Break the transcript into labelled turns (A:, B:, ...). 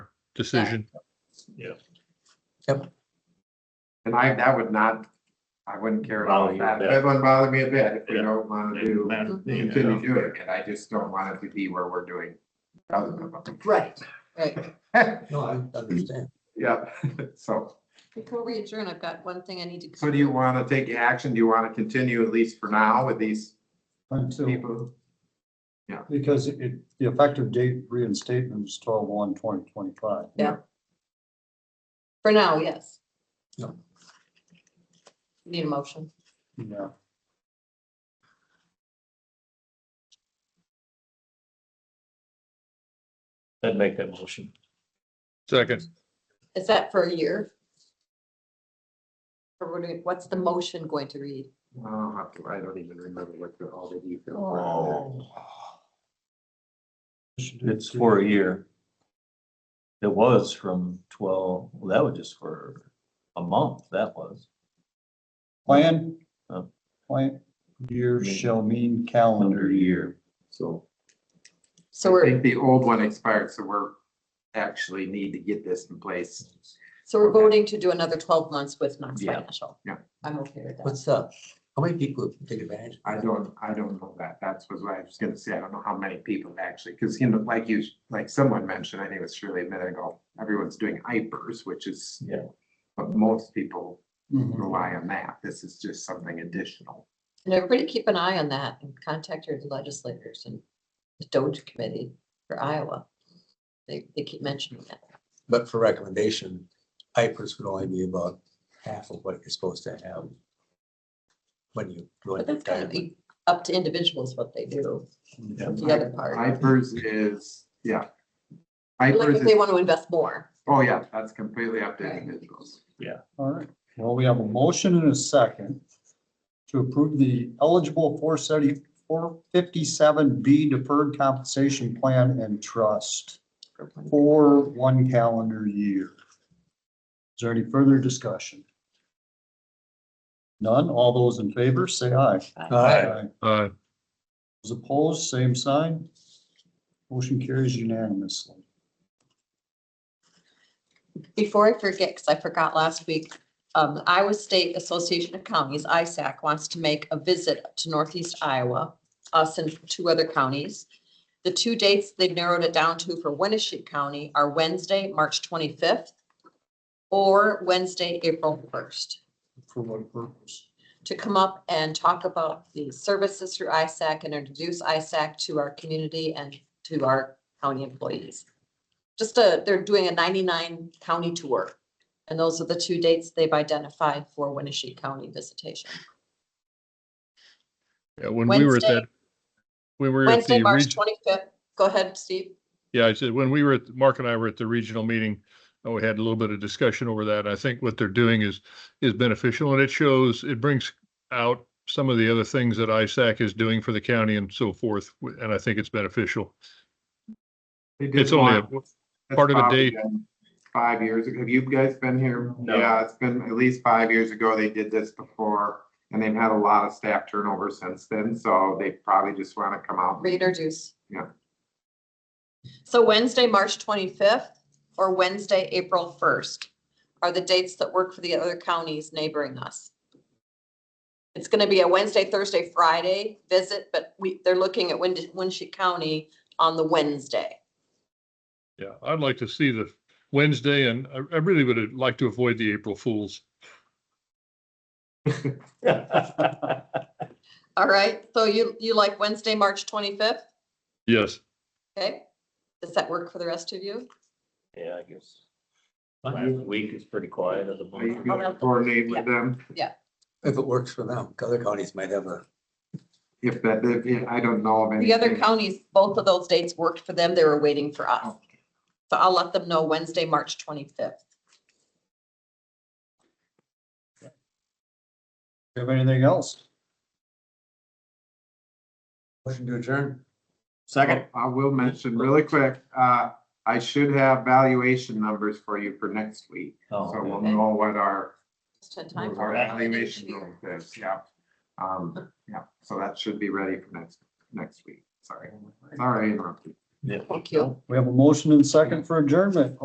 A: decision.
B: And I, that would not, I wouldn't care
C: Bother
B: about
C: you a
B: that.
C: bit.
B: That wouldn't bother me a bit if we
C: Yeah.
B: don't want to do, continue doing it. I just don't want it to be where we're doing. thousands of them.
D: Right, right.
E: No, I understand.
B: Yeah, so,
D: Before we adjourn, I've got one thing I need to.
B: so do you want to take action? Do you want to continue at least for now with these
F: Until,
B: people?
F: because it- it, the effective date reinstatement is twelve one twenty twenty-five.
D: Yeah. For now, yes.
F: No.
D: Need a motion.
F: Yeah,
C: I'd make that motion.
A: Second,
D: Is that for a year? Or what do you- what's the motion going to read?
B: Oh, I don't- I don't even remember what the, all the details. were.
C: Oh. It's for a year. It was from twelve, well, that was just for a month, that was.
F: plan,
C: Oh.
F: plan year shall mean calendar year.
C: So.
D: So
B: I
D: we're,
B: think the old one expired, so we're actually need to get this in place.
D: so we're
B: okay.
D: voting to do another twelve months with Knox
B: Yeah,
D: Financial.
B: yeah.
D: I'm okay with that.
E: What's up? How many people have taken advantage?
B: I don't, I don't know that. That's what I was gonna say. I don't know how many people actually, because you know, like you, like someone mentioned, I think it was Shirley a minute ago, everyone's doing hypers, which is.
C: Yeah.
B: But most people
E: Mm-hmm.
F: Mhm.
B: rely on that. This is just something additional.
D: And everybody keep an eye on that and contact your legislators and the Doge Committee for Iowa. They, they keep mentioning that.
E: But for recommendation, IFRS would only be about half of what you're supposed to have. When you. go
D: But
E: into
D: that's kind of
E: retirement.
D: up to individuals what they do,
C: Yeah.
D: the other part.
B: Hypers is, yeah.
D: Like
B: Hypers
D: if they
B: is,
D: want to invest more.
B: oh yeah, that's completely up to
D: Right.
B: individuals.
F: All right, well, we have a motion and a second to approve the eligible four seventy, four fifty-seven B deferred compensation plan and trust for one calendar year. Is there any further discussion? None, all those in favor, say aye.
E: Aye.
A: uh,
F: Those opposed, same sign. Motion carries unanimously.
D: Before I forget, because I forgot last week, um, Iowa State Association of Counties, ISAC, wants to make a visit to Northeast Iowa, us and two other counties. The two dates they've narrowed it down to for Winnebago County are Wednesday, March twenty-fifth, or Wednesday, April first.
F: For what purpose?
D: to come up and talk about the services through ISAC and introduce ISAC to our community and to our county employees. Just a, they're doing a ninety-nine county tour. And those are the two dates they've identified for Winnebago County visitation.
A: yeah, when we were at
D: Wednesday-
A: that, we were at
D: Wednesday,
A: the,
D: March
A: reg-
D: twenty-fifth. Go ahead, Steve.
A: yeah, I said, when we were, at Mark and I were at the regional meeting, and we had a little bit of discussion over that. I think what they're doing is, is beneficial and it shows, it brings out some of the other things that ISAC is doing for the county and so forth. And I think it's beneficial.
B: They did
A: It's only, a-
B: one- that's
A: part of a
B: probably
A: date.
B: been Five years ago. Have you guys been here?
C: No.
B: Yeah, it's been at least five years ago. They did this before. And they've had a lot of staff turnover since then, so they probably just want to come out.
D: Reintroduce.
B: Yeah.
D: So Wednesday, March twenty-fifth or Wednesday, April first are the dates that work for the other counties neighboring us. It's gonna be a Wednesday, Thursday, Friday visit, but we, they're looking at Wind, Winship County on the Wednesday.
A: yeah, I'd like to see the Wednesday and I, I really would uh, like to avoid the April Fools.
D: All right, so you, you like Wednesday, March twenty-fifth,
A: Yes.
D: okay? Does that work for the rest of you?
C: Yeah, I guess. Last week is pretty quiet at the
B: Are you
C: moment.
D: I'll
B: gonna
D: have to-
B: coordinate with them?
E: If it works for them, 'cause other counties might have a,
B: If that, if- yeah, I don't know of any.
D: The other counties, both of those dates worked for them. They were waiting for us. So I'll let them know Wednesday, March twenty-fifth.
F: Do you have anything else?
E: motion to adjourn.
B: Second. Oh, I will mention really quick, uh, I should have valuation numbers for you for next week.
C: Oh,
B: So we'll
C: okay.
B: know what our,
D: Just had time for
B: our
D: that.
B: valuation number is, yeah. Um, yeah, so that should be ready for next, next week. Sorry, sorry, I interrupted.
C: Yeah.
D: Thank you.
F: We have a motion and second for adjournment.